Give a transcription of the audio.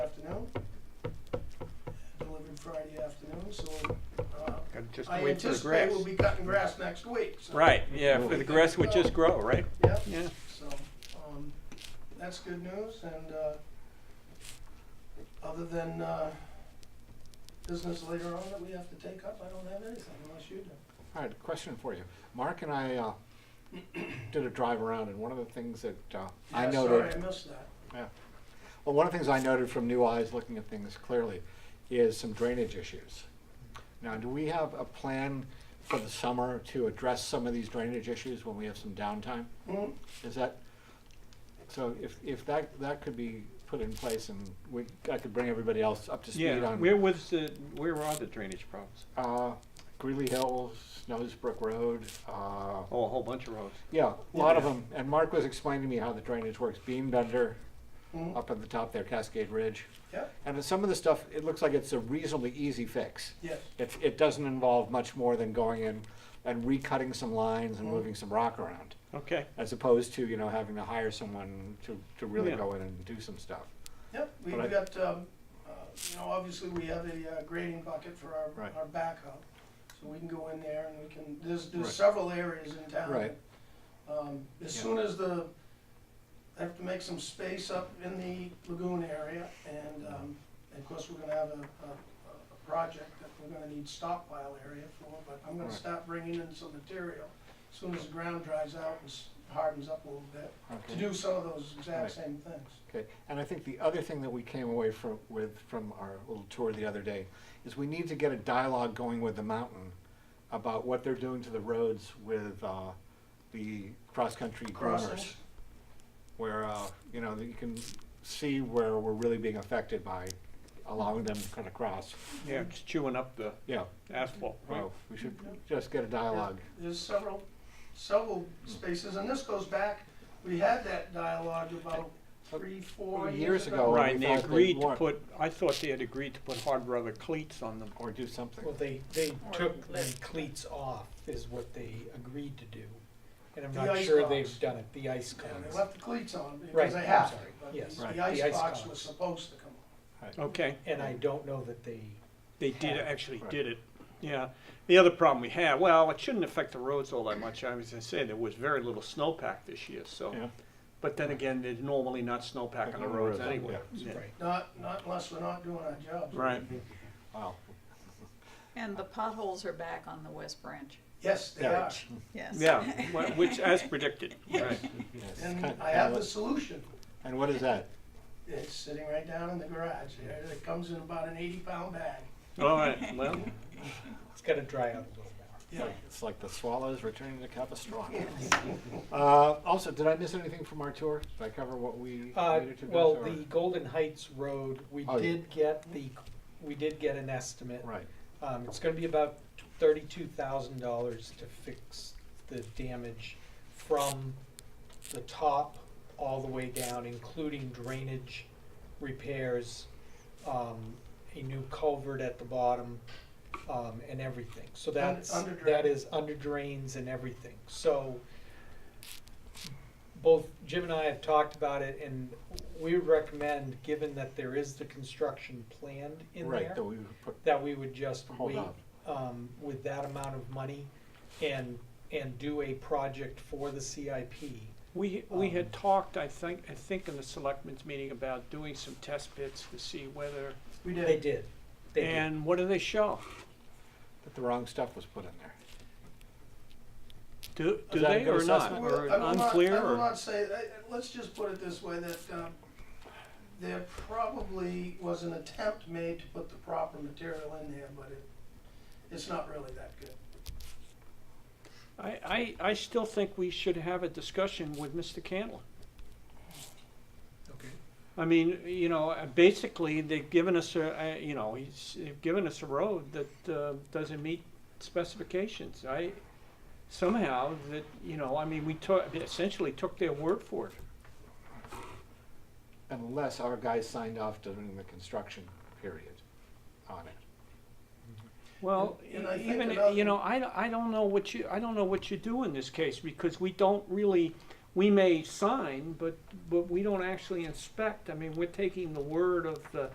so uh, Gotta just I wait for the anticipate grass. we'll be cutting grass next week. so- Right, yeah, for the grass would just grow, right? Yep. Yeah. So, um, that's good news, and, uh, other than, uh, business later on that we have to take up, I don't have anything unless you do. All right, question for you. Mark and I uh, did a drive around, and one of the things that uh, I Yeah, noted, Sorry, I missed that. yeah, well, one of the things I noted from new eyes looking at things clearly is some drainage issues. Now, do we have a plan for the summer to address some of these drainage issues when we have some downtime? Mm, Is that so? If if that that could be put in place, and we I could bring everybody else up to speed Yeah, on where was the, where are the drainage problems? uh, Greeley Hills, Snowsbrook Road. Uh, Oh, a whole bunch of roads. Yeah, a lot of Yeah. them. And Mark was explaining to me how the drainage works. Beam bender mm, up at the top there, Cascade Ridge. Yep, And some of the stuff, it looks like it's a reasonably easy fix. yes, It, it doesn't involve much more than going in and recutting some lines and Mhm. moving some rock around, Okay, as opposed to, you know, having to hire someone to, to really Yeah. go in and do some stuff. yep, we've But I- got, um, uh, you know, obviously we have a uh, grading bucket for our, Right. our backhoe. So we can go in there and we can, there's, there's Right. several areas in town. Right. Um, as Yeah. soon as the, I have to make some space up in the lagoon area, and, um, and of course, we're gonna have a, a, a project that we're gonna need stockpile area for, but I'm gonna Right. start bringing in some material as soon as the ground dries out and s- hardens up a little bit, to Okay. do some of those exact Right. same things. Okay. And I think the other thing that we came away from, with from our little tour the other day is we need to get a dialogue going with the mountain about what they're doing to the roads with uh, the cross-country groomers. Crossings. Where, uh, you know, that you can see where we're really being affected by allowing them to kind of cross. yeah, it's chewing up the Yeah, asphalt. right? well, we should just get a dialogue. There's several, several spaces, and this goes back, we had that dialogue about three, four years Years ago. ago. Well, Right, we Oh, and they thought they agreed to weren't. put, I thought they had agreed to put hard rubber cleats on them. Or do something. Well, they, they Or took the clip. cleats off is what they agreed to do. And I'm The not ice sure box. they've done it, the ice Yeah, cones. they left the cleats on because Right, they I'm have to, sorry, but yes, the- right, the the ice ice box box. was supposed to come on. Okay, And I don't know that they, they did, actually Right. did it, yeah. The other problem we had, well, it shouldn't affect the roads all that much. I was gonna say, there was very little snowpack this year, so. Yeah. But then again, there's normally not snowpack on the Yeah, roads yeah. anyway. Yeah. right, Not, not unless we're not doing our jobs. Right, Wow. And the potholes are back on the West Branch, Yes, they Yeah. are. yes. yeah, wh- which as predicted, right. Yes. And Kind- I have kinda the solution. what- And what is that? It's sitting right down in the garage there. It comes in about an eighty pound bag. All right, well, it's gotta dry out a little more. Yeah. It's like the swallows returning to Capistrano. Uh, also, did I miss anything from our tour? Did I cover what we Uh, needed to do? well, or- the Golden Heights Road, we Oh, yeah. did get the, we did get an estimate. Right, Um, it's gonna be about thirty-two thousand dollars to fix the damage from the top all the way down, including drainage repairs, um, a new culvert at the bottom, um, and everything. So that's, under that drain. is under drains and everything. So both Jim and I have talked about it and we recommend, given that there is the construction planned in there right, that we put, that we would just hold wait, on. um, with that amount of money and, and do a project for the CIP. we, we had Um, talked, I think, I think in the selectmen's meeting about doing some test bits to see whether, We They did. did, they did. and what do they show? That the wrong stuff was put in there. Do, do that a they good or not, assessment? or Well, I will not- unclear, I will or? not say, I- I- let's just put it this way, that um, there probably was an attempt made to put the proper material in there, but it, it's not really that good. I, I, I still think we should have a discussion with Mr. Candler. Okay. I mean, you know, uh, basically, they've given us a, uh, you know, he's, they've given us a road that uh, doesn't meet specifications. I, somehow, that, you know, I mean, we took, essentially took their word for it. Unless our guys signed off during the construction period on it. Well, And- and I think even, another- you know, I, I don't know what you, I don't know what you do in this case, because we don't really, we may sign, but, but we don't actually inspect. I mean, we're taking the word of the